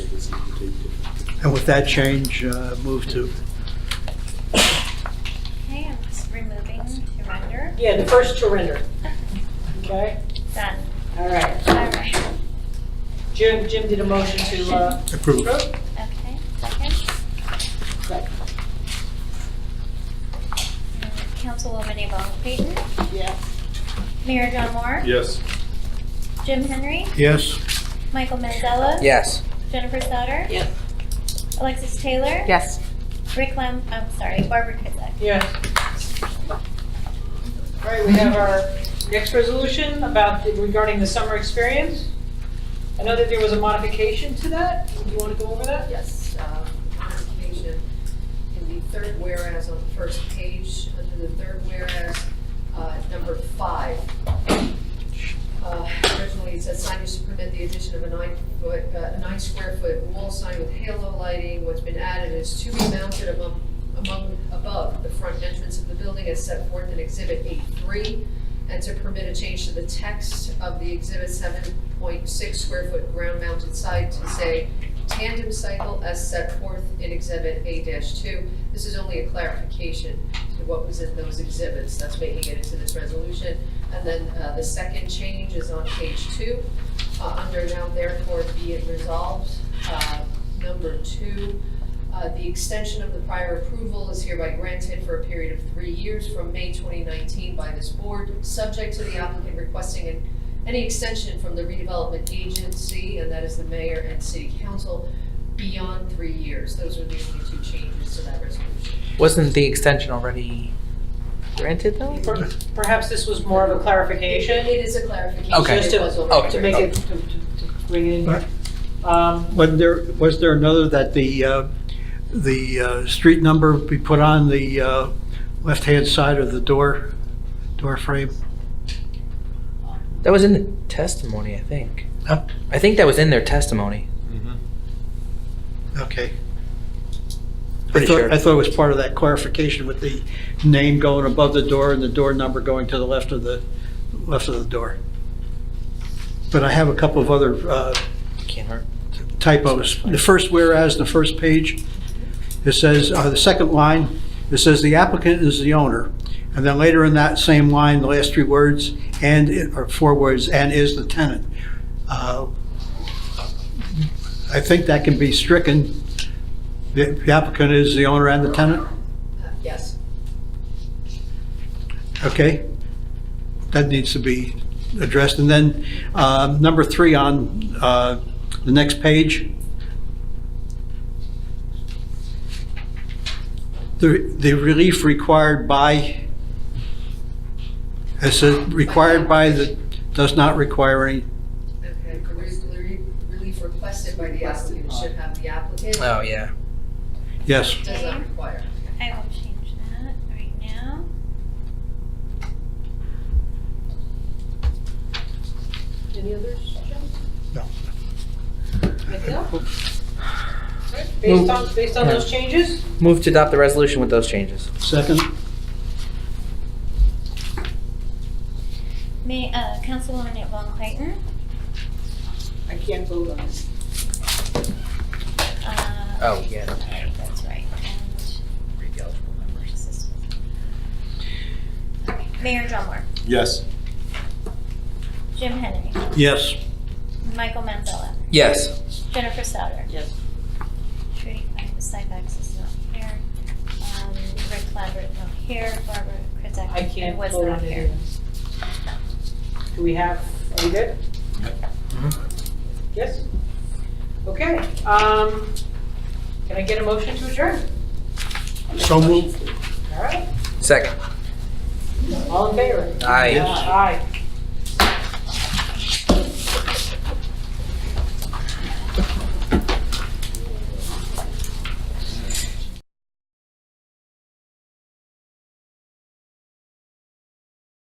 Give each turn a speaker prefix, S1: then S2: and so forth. S1: is complete.
S2: And with that change, uh, move to,
S3: Okay, I'm just removing to render.
S4: Yeah, the first to render. Okay,
S3: Done.
S4: all right.
S3: All right.
S4: Jim, Jim did a motion to, uh,
S2: Approve.
S3: Okay, second. Councilwoman Yvonne Clayton.
S4: Yeah.
S3: Mayor John Moore.
S1: Yes.
S3: Jim Henry.
S2: yes?
S3: Michael Manzella.
S5: Yes.
S3: Jennifer Sauter.
S4: Yes.
S3: Alexis Taylor.
S6: Yes.
S3: Rick Lam, I'm sorry, Barbara Kizak.
S4: Yes. All right, we have our next resolution about the- regarding the summer experience. I know that there was a modification to that. Do you want to go over that?
S7: Yes, uh, modification in the third whereas on the first page, under the third whereas, uh, number five. Uh, Originally, it said sign is to permit the addition of a nine foot, uh, nine square foot wall sign with halo lighting. What's been added is to be mounted among, among, above the front entrance of the building as set forth in exhibit eight three. And to permit a change to the text of the exhibit seven point six square foot ground mounted side to say tandem cycle as set forth in Exhibit A two. This is only a clarification to what was in those exhibits, that's making it into this resolution. And then, uh, the second change is on page two, uh, under now therefore be it resolved, uh, number two. Uh, the extension of the prior approval is hereby granted for a period of three years from May twenty nineteen by this board, subject to the applicant requesting an any extension from the redevelopment agency, and that is the mayor and city council, beyond three years. Those are the only two changes to that resolution.
S5: Wasn't the extension already granted though?
S4: Per- Perhaps this was more of a clarification.
S7: It is a clarification.
S5: Okay.
S7: It was
S5: Okay.
S7: already-
S4: to make it, to, to to bring it
S2: Right.
S4: in. Um,
S2: Wasn't there, was there another that the, uh, the uh, street number be put on the uh, left-hand side of the door, door frame?
S7: Uh,
S5: That was in the testimony, I think.
S2: Huh?
S5: I think that was in their testimony.
S2: Okay. I
S5: Pretty
S2: thought,
S5: sure.
S2: I thought it was part of that clarification with the name going above the door and the door number going to the left of the, left of the door. But I have a couple of other uh,
S5: Can't hurt.
S2: typos. The first whereas, the first page, it says, uh, the second line, it says the applicant is the owner. And then later in that same line, the last three words, and, i- or four words, and is the tenant. Uh, I think that can be stricken. The the applicant is the owner and the tenant,
S7: Uh, Yes.
S2: okay? That needs to be addressed. And then, uh, number three on, uh, the next page, the the relief required by, it says required by the, does not require any,
S7: Okay, the re- the relief requested by the applicant should have the applicant.
S5: Oh, yeah.
S2: yes.
S7: Does not require.
S3: I will change that right now.
S4: any others, Jim?
S2: No.
S4: Anything else? All right, Based on, based on those changes,
S5: Move to adopt the resolution with those changes.
S2: Second,
S3: May, uh, Councilwoman Yvonne Clayton.
S4: I can't vote on this.
S3: Uh,
S5: Oh, yeah.
S3: Okay, that's right. And where's this one? Okay, Mayor John Moore.
S1: Yes.
S3: Jim Henry.
S2: yes.
S3: Michael Manzella.
S5: Yes.
S3: Jennifer Sauter.
S4: Yes.
S3: Trudy Syfax is not here. Um, Rick Lambert not here. Barbara Krizak.
S4: I can't
S3: was
S4: vote
S3: not
S4: on
S3: here.
S4: it. Do we have, are we good?
S5: Mm-hmm.
S4: Yes? Okay, um, can I get a motion to adjourn?
S2: So moved.
S4: All right,
S5: Second.
S4: all in favor?
S5: Aye.
S4: Aye.